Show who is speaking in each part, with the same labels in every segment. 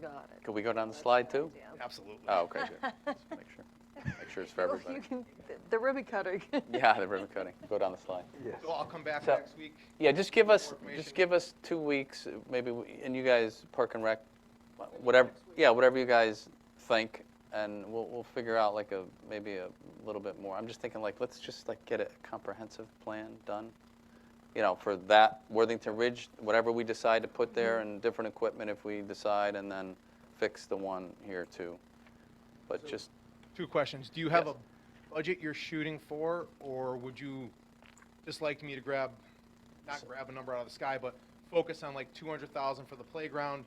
Speaker 1: got it.
Speaker 2: Could we go down the slide too?
Speaker 1: Yeah.
Speaker 3: Absolutely.
Speaker 2: Oh, okay, good. Just Make sure, make sure it's for
Speaker 1: You-
Speaker 2: everybody.
Speaker 1: you can- The ribbon cutter.
Speaker 2: Yeah, the ribbon cutting, go down the slide.
Speaker 3: So I'll come back
Speaker 2: So-
Speaker 3: next week.
Speaker 2: Yeah, just give us,
Speaker 3: Information.
Speaker 2: just give us two weeks, uh, maybe, we- and you guys, Park and Rec, whatever, yeah, whatever you guys think, and we'll, we'll figure out like a, maybe a little bit more. I'm just thinking like, let's just like get a comprehensive plan done, you know, for that Worthington Ridge, whatever we decide to put there, and different equipment if we decide, and then fix the one here too. But
Speaker 3: So-
Speaker 2: just,
Speaker 3: Two questions. Do you have
Speaker 2: Yes.
Speaker 3: a budget you're shooting for, or would you just like me to grab, not grab a number out of the sky, but focus on like 200,000 for the playground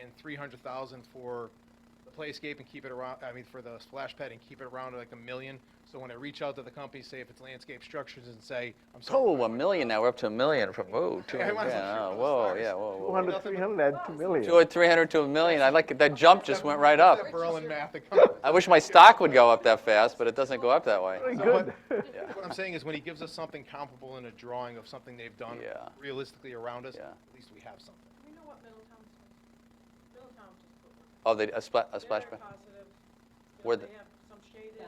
Speaker 3: and 300,000 for the playscape and keep it around, I mean, for the splash pad and keep it around like a million? So when I reach out to the company, say if it's landscape structures and say, I'm sorry.
Speaker 2: oh, a million now, we're up to a million from, whoa, two,
Speaker 3: Yeah, I
Speaker 2: yeah,
Speaker 3: might as well shoot for
Speaker 2: oh,
Speaker 3: the
Speaker 2: whoa,
Speaker 3: stars.
Speaker 2: yeah, whoa, whoa, whoa.
Speaker 4: 200, 300, add 2 million.
Speaker 2: Two or three hundred to a million. I like it. That jump just went right up.
Speaker 3: That Berlin math that comes-
Speaker 2: I wish my stock would go up that fast, but it doesn't go up that way.
Speaker 4: Very
Speaker 3: So
Speaker 4: good.
Speaker 3: What I'm saying is when he gives us something comparable in a drawing of something they've done
Speaker 2: Yeah.
Speaker 3: realistically around us,
Speaker 2: Yeah.
Speaker 3: at least we have something.
Speaker 5: We know what Middletown's, Middletown just put one.
Speaker 2: Oh, they, a splash, a splash
Speaker 5: They're
Speaker 2: pad.
Speaker 5: positive. You
Speaker 2: Where
Speaker 5: know,
Speaker 2: the-
Speaker 5: They have some shaded,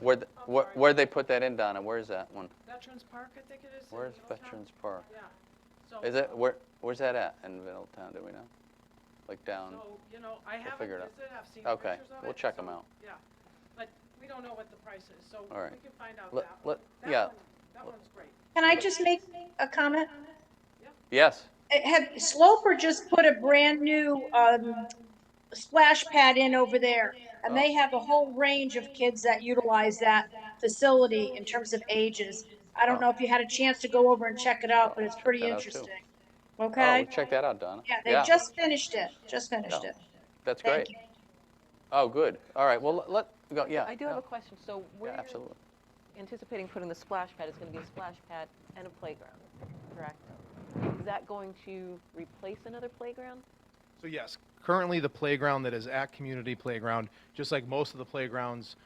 Speaker 2: Where, th- where, where'd they put that in, Donna? Where's that one?
Speaker 5: Veterans Park, I think it is. in
Speaker 2: Where's
Speaker 5: Middletown.
Speaker 2: Veterans Park?
Speaker 5: Yeah. So,
Speaker 2: Is it, where, where's that at in Middletown? Do we know? Like down?
Speaker 5: So, you know, I haven't
Speaker 2: figure it out.
Speaker 5: visited, I've seen pictures of
Speaker 2: Okay,
Speaker 5: it.
Speaker 2: we'll check 'em
Speaker 5: so,
Speaker 2: out.
Speaker 5: Yeah, but we don't know what the price is, so
Speaker 2: All right.
Speaker 5: we can find out
Speaker 2: Let-
Speaker 5: that one.
Speaker 2: let-
Speaker 5: That
Speaker 2: yeah.
Speaker 5: one- That one's great.
Speaker 6: Can I just make a comment?
Speaker 2: Yes.
Speaker 6: Uh, Have Sloper just put a brand-new um, splash pad in over there, and they have a whole range of kids that utilize that facility in terms of ages. I don't know if you had a chance to go over and check it out, but it's pretty
Speaker 2: Check it out, too.
Speaker 6: interesting.
Speaker 2: Oh, we'll
Speaker 6: Okay?
Speaker 2: check that out, Donna.
Speaker 6: Yeah, they just finished it, just finished
Speaker 2: Yeah.
Speaker 6: it.
Speaker 2: That's
Speaker 6: Thank
Speaker 2: great.
Speaker 6: you.
Speaker 2: Oh, good. All right, well, let- let, go, yeah.
Speaker 1: I do have
Speaker 2: yeah,
Speaker 1: a question. So
Speaker 2: Yeah,
Speaker 1: we're
Speaker 2: absolutely.
Speaker 1: anticipating putting the splash pad, it's going to be a splash pad and a playground, correct? Is that going to replace another playground?
Speaker 3: So yes, currently the playground that is at Community Playground, just like most of the playgrounds,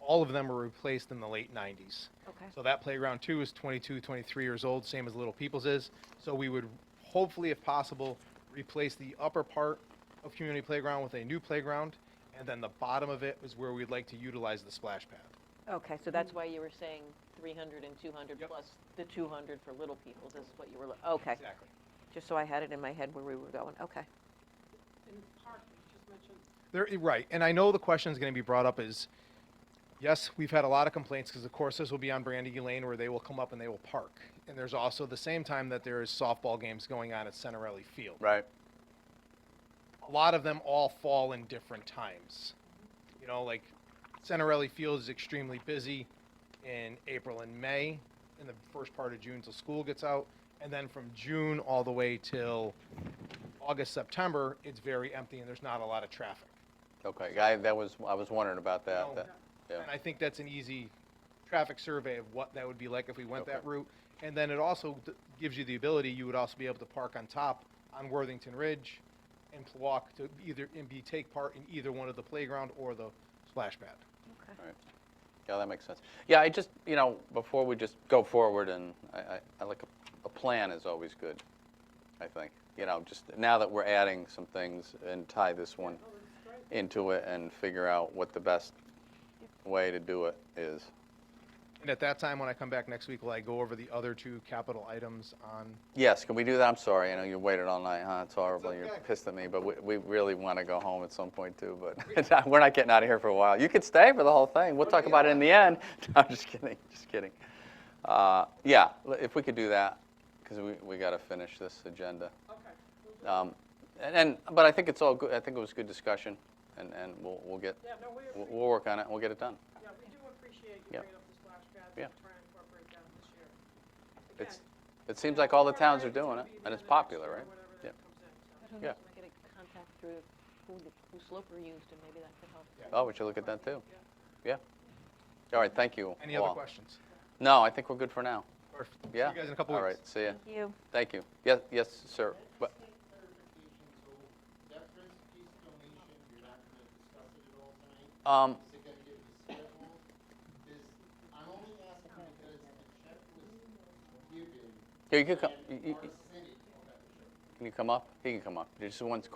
Speaker 3: all of them were replaced in the late 90s.
Speaker 1: Okay.
Speaker 3: So that playground too is 22, 23 years old, same as Little People's is. So we would hopefully, if possible, replace the upper part of Community Playground with a new playground, and then the bottom of it is where we'd like to utilize the splash pad.
Speaker 1: Okay, so that's why you were saying 300 and 200
Speaker 3: Yep.
Speaker 1: plus the 200 for Little People's is what you were, lo- okay.
Speaker 3: Exactly.
Speaker 1: Just so I had it in my head where we were going, okay.
Speaker 5: In the park, you just mentioned,
Speaker 3: There, right, and I know the question is going to be brought up is, yes, we've had a lot of complaints because of course this will be on Brandy Lane where they will come up and they will park, and there's also the same time that there is softball games going on at Centerelli Field.
Speaker 2: Right.
Speaker 3: A lot of them all fall in different times. You know, like Centerelli Field is extremely busy in April and May, in the first part of June till school gets out, and then from June all the way till August September, it's very empty and there's not a lot of traffic.
Speaker 2: Okay, I, that was, I was wondering about that.
Speaker 3: No.
Speaker 2: that- Yeah.
Speaker 3: And I think that's an easy traffic survey of what that would be like if we went
Speaker 2: Okay.
Speaker 3: that route. And then it also d- gives you the ability, you would also be able to park on top on Worthington Ridge and pl- walk to either, and be, take part in either one of the playground or the splash pad.
Speaker 2: Yeah, that makes sense. Yeah, I just, you know, before we just go forward and I, I, I like a, a plan is always good, I think. You know, just now that we're adding some things and tie this one
Speaker 5: oh, it's great.
Speaker 2: into it and figure out what the best way to do it is.
Speaker 3: And at that time, when I come back next week, will I go over the other two capital items on?
Speaker 2: Yes, can we do that? I'm sorry, I know you waited all night, huh? It's horrible, you're
Speaker 3: okay.
Speaker 2: pissed at me, but we, we really want to go home at some point too, but we're not getting out of here for a while. You could stay for the whole thing, we'll talk about it in the end. No, I'm just kidding, just kidding. Uh, Yeah, l- if we could do that, because we, we got to finish this agenda.
Speaker 5: Okay. we'll do-
Speaker 2: Um, And, and- but I think it's all good, I think it was good discussion, and, and we'll, we'll get,
Speaker 5: Yeah, no, we,
Speaker 2: we'll
Speaker 5: appre-
Speaker 2: we'll work on it, and we'll get it done.
Speaker 5: yeah, we do appreciate you
Speaker 2: Yeah.
Speaker 5: bringing up the splash pads
Speaker 2: Yeah.
Speaker 5: and trying to incorporate that this year.
Speaker 2: It's,
Speaker 5: Again,
Speaker 2: it seems like all the towns are doing it, and it's popular, right? Yeah.
Speaker 1: Can
Speaker 2: Yeah.
Speaker 1: I get a contact through who, the- who Sloper used and maybe that could help?
Speaker 2: Oh, we should look at that too. Yeah. All right, thank you.
Speaker 3: Any other
Speaker 2: all.
Speaker 3: questions?
Speaker 2: No, I think we're good for now.
Speaker 3: Or see
Speaker 2: Yeah.
Speaker 3: you guys in a couple
Speaker 2: All
Speaker 3: weeks.
Speaker 2: right, see ya.
Speaker 1: Thank you.
Speaker 2: Thank you. Yes, yes, sir. But-
Speaker 7: clarification, so that first piece donation, you're not gonna discuss it at all tonight?
Speaker 2: Um,
Speaker 7: Is it gonna get rescheduled? Is, I'm only asking because the check was given,
Speaker 2: here, you can come,
Speaker 7: and
Speaker 2: you- you-
Speaker 7: our city, okay.
Speaker 2: can you come up? He can come up. Just one